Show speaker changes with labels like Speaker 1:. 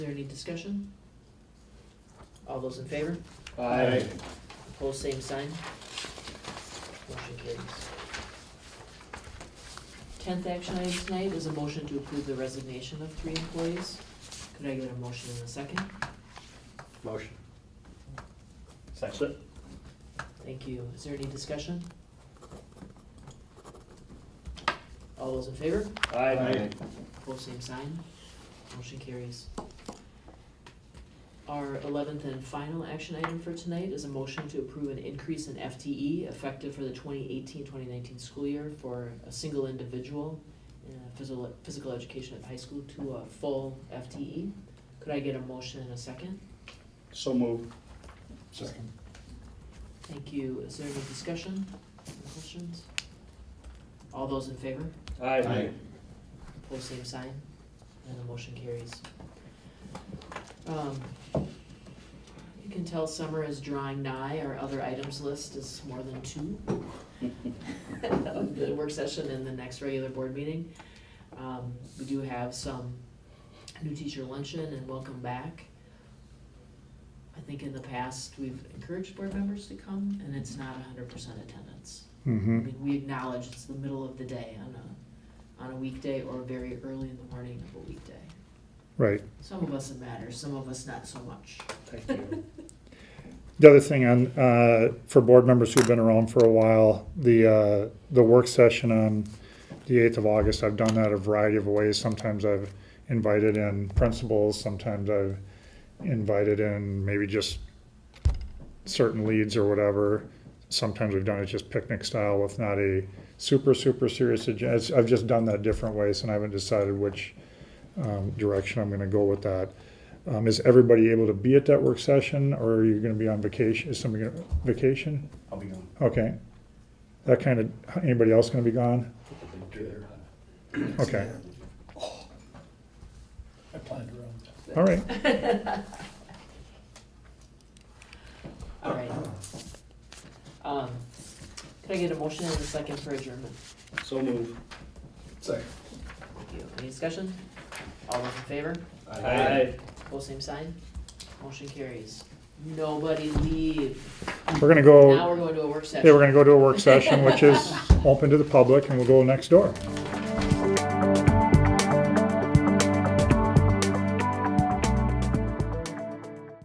Speaker 1: Is there any discussion? All those in favor?
Speaker 2: Aye.
Speaker 1: Opposed, same sign. Motion carries. Tenth action item tonight is a motion to approve the resignation of three employees. Could I get a motion in a second?
Speaker 2: Motion.
Speaker 3: Second.
Speaker 1: Thank you. Is there any discussion? All those in favor?
Speaker 2: Aye.
Speaker 1: Both same sign. Motion carries. Our eleventh and final action item for tonight is a motion to approve an increase in FTE effective for the 2018-2019 school year for a single individual in physical, physical education at high school to a full FTE. Could I get a motion and a second?
Speaker 3: So moved.
Speaker 2: Second.
Speaker 1: Thank you. Is there any discussion, Any questions? All those in favor? Pose same sign, and the motion carries. Um, You can tell summer is drawing nigh, our other items list is more than two of the work session and the next regular board meeting. Um, We do have some new teacher luncheon and welcome back. I think in the past, we've encouraged board members to come, and it's not hundred percent attendance. I
Speaker 4: Mm-hmm.
Speaker 1: mean, we acknowledge it's the middle of the day on a, on a weekday or very early in the morning of a weekday.
Speaker 4: Right.
Speaker 1: Some of us it matters, some of us not so much.
Speaker 3: Thank you.
Speaker 4: The other thing on uh, for board members who've been around for a while, the uh, the work session on the eighth of August. I've done that a variety of ways. Sometimes I've invited in principals. Sometimes I've invited in maybe just certain leads or whatever. Sometimes we've done it just picnic style with not a super super serious agenda. I've just done that different ways, and I haven't decided which um, direction I'm going to go with that. Um, is everybody able to be at that work session, or are you going to be on vacation? Is somebody going to vacation?
Speaker 2: I'll be gone.
Speaker 4: Okay. That kind of anybody else going to be gone? Okay.
Speaker 3: I planned around that.
Speaker 4: All right.
Speaker 1: All right. Um, Could I get a motion and a second for adjournment?
Speaker 3: So moved.
Speaker 2: Second.
Speaker 1: Thank you. Any discussion? All those in favor? Both same sign? Motion carries. Nobody leave.
Speaker 4: We're going to
Speaker 1: Now
Speaker 4: go.
Speaker 1: we're going to a work session.
Speaker 4: Yeah, we're going to go to a work session, which is open to the public, and we'll go next door.